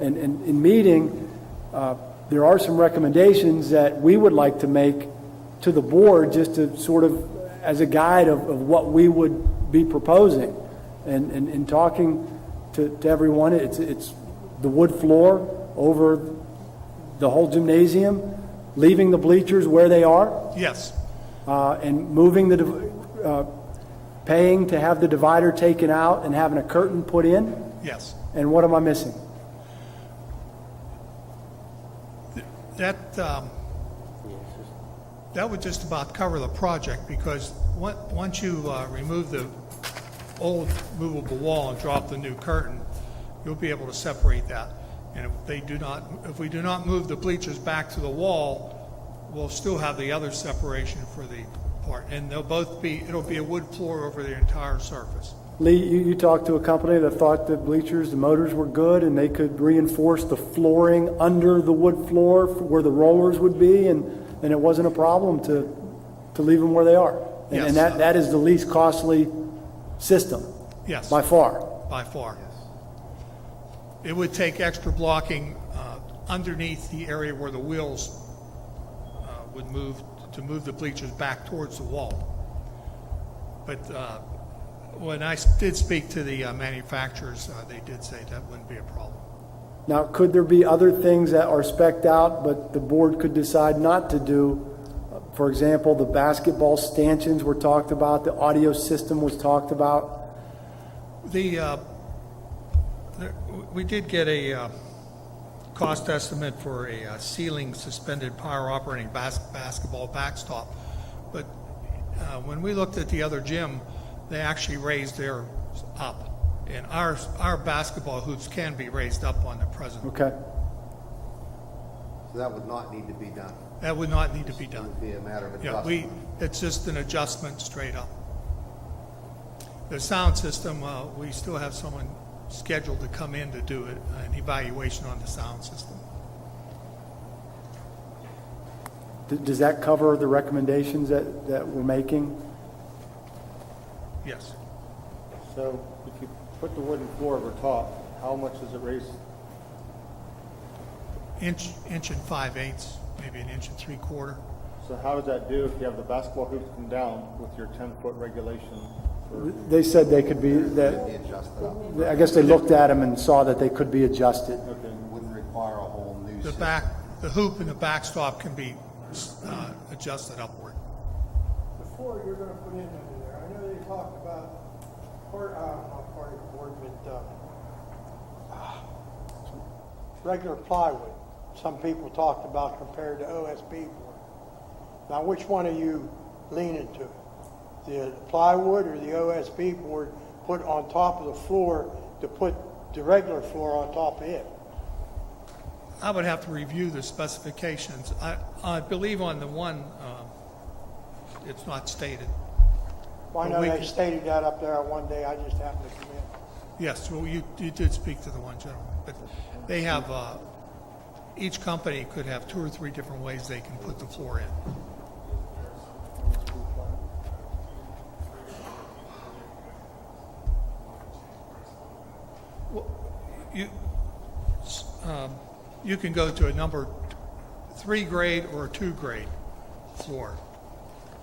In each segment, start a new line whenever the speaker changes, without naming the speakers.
And, and in meeting, uh, there are some recommendations that we would like to make to the board, just to sort of, as a guide of, of what we would be proposing. And, and, in talking to, to everyone, it's, it's the wood floor over the whole gymnasium, leaving the bleachers where they are,
Yes,
uh, and moving the, div- uh, paying to have the divider taken out and having a curtain put in,
yes.
and what am I missing?
That, um, that would just about cover the project, because on- once you uh, remove the old movable wall and drop the new curtain, you'll be able to separate that. And if they do not, if we do not move the bleachers back to the wall, we'll still have the other separation for the part. And they'll both be, it'll be a wood floor over the entire surface.
Lee, you, you talked to a company that thought the bleachers, the motors were good, and they could reinforce the flooring under the wood floor where the rollers would be, and, and it wasn't a problem to, to leave them where they are. And,
Yes.
and that, that is the least costly system,
Yes.
by far.
by far. It would take extra blocking uh, underneath the area where the wheels uh, would move, to move the bleachers back towards the wall. But uh, when I s- did speak to the uh, manufacturers, uh, they did say that wouldn't be a problem.
Now, could there be other things that are specked out, but the board could decide not to do? For example, the basketball stanchions were talked about, the audio system was talked about.
The, uh, there- we did get a uh, cost estimate for a uh, ceiling suspended power operating bas- basketball backstop, but uh, when we looked at the other gym, they actually raised theirs up, and ours, our basketball hoops can be raised up on the present.
Okay,
So that would not need to be done.
That would not need to be
It
done.
would be a matter of
Yeah, we,
adjustment.
it's just an adjustment straight up. The sound system, uh, we still have someone scheduled to come in to do it, an evaluation on the sound system.
Th- does that cover the recommendations that, that we're making?
Yes.
So if you put the wooden floor over top, how much does it raise?
Inch, inch and five eighths, maybe an inch and three quarter.
So how does that do if you have the basketball hoops come down with your ten-foot regulation? for-
They said they could be,
Be
that,
adjusted up. It
I guess they looked at them and saw that they could be adjusted.
Okay,
Wouldn't require a whole new
The
system.
back, the hoop and the backstop can be uh, adjusted upward.
the floor you're gonna put in under there, I know they talked about, part, uh, not part of the board, but, uh, ah, regular plywood, some people talked about compared to OSB board. Now, which one are you leaning to? The plywood or the OSB board put on top of the floor to put the regular floor on top of it?
I would have to review the specifications. I, I believe on the one, um, it's not stated.
Well,
Well,
I know
we
they
could-
stated that up there one day, I just happened to come in.
Yes, well, you, you did speak to the one gentleman, but they have, uh, each company could have two or three different ways they can put the floor in. Well, You, s- um, you can go to a number three grade or a two grade floor.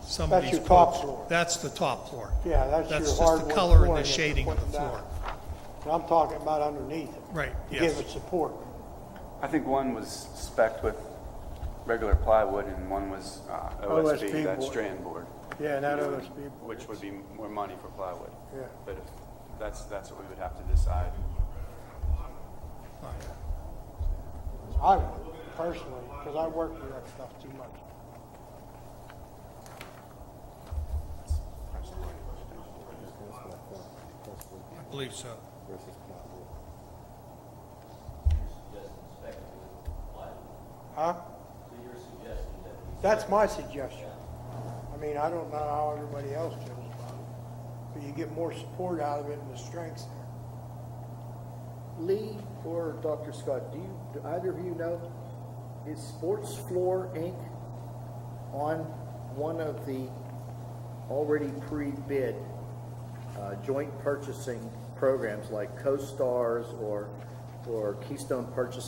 Some of
That's
these
your top
quotes-
floor.
That's the top floor.
Yeah, that's your
That's just
hardwood
the color and
flooring
the
that you're
shading of
putting
the
down.
floor.
But I'm talking about underneath it.
Right,
To
yes.
give it support.
I think one was specced with regular plywood and one was uh,
OSB
OSB, that
board.
strand board,
Yeah, that OSB board.
which would be more money for plywood.
Yeah.
But if, that's, that's what we would have to decide.
I would, personally, because I work with that stuff too much.
I believe so.
Huh? So your suggestion that... That's my suggestion. I mean, I don't know how everybody else feels about it, but you get more support out of it and the strengths there.
Lee or Dr. Scott, do you, do either of you know, is Sports Floor Inc. on one of the already pre-bid uh, joint purchasing programs like Co-Stars or
or Keystone Purchasing